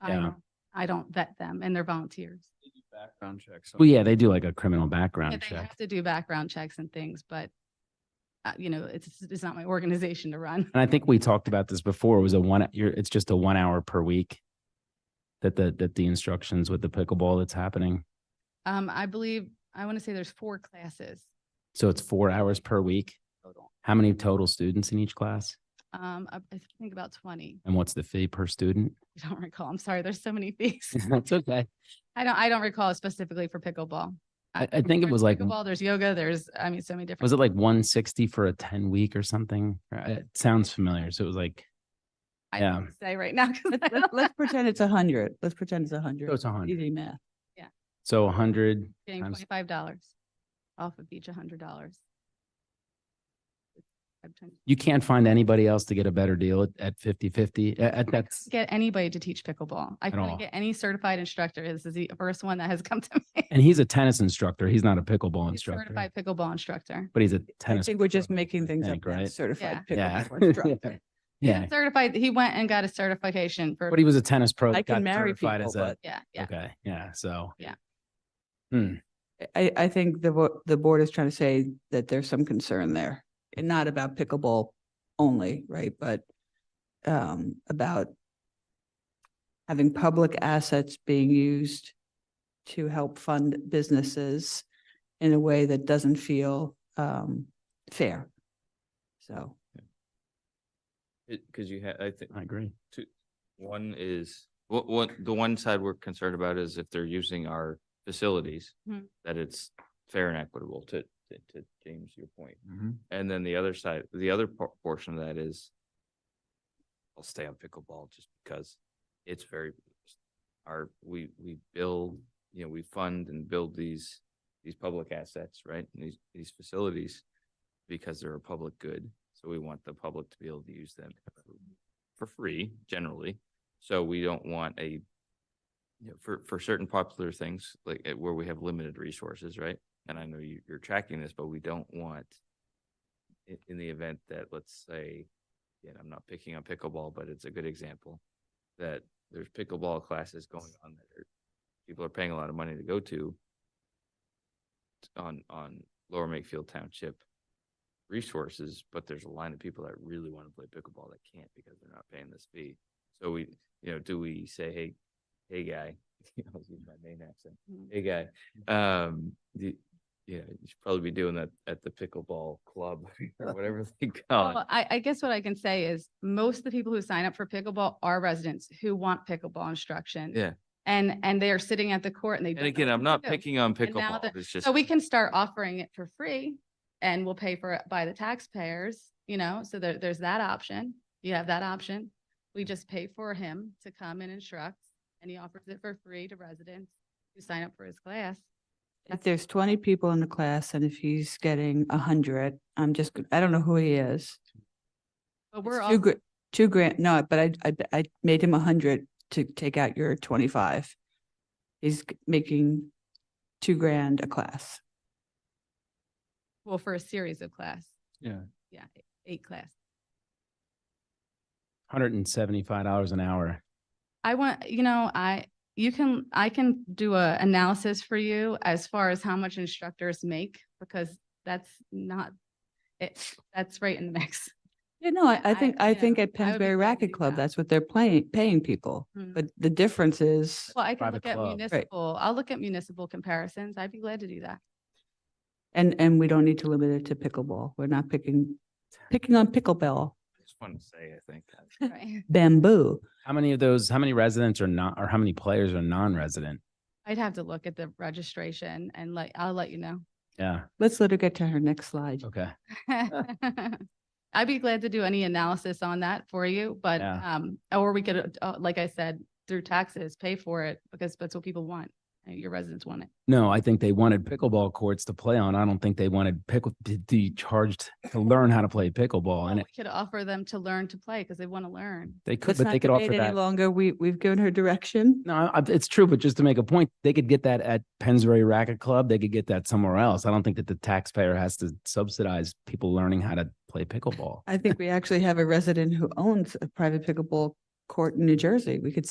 I Yeah. don't- I don't vet them and they're volunteers. Background checks. Well, yeah, they do like a criminal Yeah, background They have check. to do background checks and things, but uh, you know, it's, it's not my organization to run. And I think we talked about this before. It was a one, you're, it's just a one hour per week that the, that the instructions with the pickleball that's happening. Um, I believe, I want to say there's four classes So it's four hours per week. total. How many total students in each class? Um, I I think about twenty. And what's the fee per student? I don't recall. I'm sorry. There's so many fees. That's okay. I don't, I don't recall specifically for pickleball. I, I think it There's was like, Pickleball, there's yoga, there's, I mean, so many different. was it like one sixty for a ten week or something? Right, It sounds familiar. So it was like, I yeah. can't Say right now. 'cause I Let's, don't let's pretend it's a hundred. Let's pretend it's a so hundred. it's a hundred. Easy math. So a hundred Getting times- twenty-five dollars off of each hundred dollars. I'm trying to you can't find anybody else to get a better deal at, at 50 50 at, at that's Get anybody to teach pickleball. I At all. couldn't get any certified instructor. This is the first one that has come to me. and he's a tennis instructor he's not a pickleball A instructor Certified pickleball instructor. but he's a I tennis think we're just pro, I making things up. think, now. right Certified yeah pickleball instructor. yeah Certified, he went and got a certification for. but he was a tennis pro I that can got marry certified people, as a- Yeah, yeah. okay yeah so I, I think the, vo- the board is trying to say that there's some concern there and not about pickleball only, right? But um, about having public assets being used to help fund businesses in a way that doesn't feel um, fair. So. Because you had, I think, i agree one is, what, what, the one side we're concerned about is if they're using our facilities, Mhm. that it's fair and equitable to, to, to James, your point. Mhm. And then the other side, the other por- portion of that is I'll stay on pickleball just because it's very, our, we, we build, you know, we fund and build these, these public assets, right? And These, these facilities because they're a public good. So we want the public to be able to use them for free generally. So we don't want a, you know, for, for certain popular things, like eh, where we have limited resources, right? And I know you, you're tracking this, but we don't want in, in the event that, let's say, and I'm not picking on pickleball, but it's a good example, that there's pickleball classes going on that are, people are paying a lot of money to go to on, on Lower Makefield Township resources, but there's a line of people that really want to play pickleball that can't because they're not paying this fee. So we, you know, do we say, hey, hey, guy, I was using my main accent, Mm. hey, guy, um, the, yeah, you should probably be doing that at the pickleball club or whatever they call it. Well, I, I guess what I can say is most of the people who sign up for pickleball are residents who want pickleball instruction. Yeah. And, and they are sitting at the court and they. don't And know again, what I'm to not do. picking on And now pickleball, that- it's just. So we can start offering it for free and we'll pay for it by the taxpayers, you know, so there, there's that option. You have that option. We just pay for him to come and instruct and he offers it for free to residents who sign up for his class. If there's twenty people in the class and if he's getting a hundred, I'm just, go- I don't know who he is. But It's we're Two all, grand, two grand, no, but I, I, I made him a hundred to take out your twenty-five. He's g- making two grand a class. well, for a series of class. Yeah. Yeah, e, eight class. 175 dollars an hour I want, you know, I, you can, I can do a analysis for you as far as how much instructors make, because that's not, it, that's right in the mix. Yeah, no, I, I- I think, I yeah, think at I would be glad Pensbury to Racket do Club, that. that's what they're playing, paying people. Mhm. But the difference is, Well, I can private look at club. Right. municipal, I'll look at municipal comparisons. I'd be glad to do that. and, and we don't need to limit it to pickleball. We're not picking, picking on pickleball, I Just want to say, I think that. Right. bamboo. how many of those how many residents are not or how many players are non-resident I'd have to look at the registration and like, I'll let you know. yeah Let's let her get to her next slide. okay I'd be glad to do any analysis on that for you, but, Yeah. um, or we could, uh, like I said, through taxes, pay for it because that's what people want. uh, Your residents want it. no i think they wanted pickleball courts to play on i don't think they wanted pickle to be charged to learn how to play pickleball Well, and we it, could offer them to learn to play because they want to learn. they could Let's but they not could offer debate any that longer. We, we've given her direction. No, I- I- it's true, but just to make a point, they could get that at Pensbury Racket Club. They could get that somewhere else. I don't think that the taxpayer has to subsidize people learning how to play pickleball. I think we actually have a resident who owns a private pickleball court in New Jersey. We could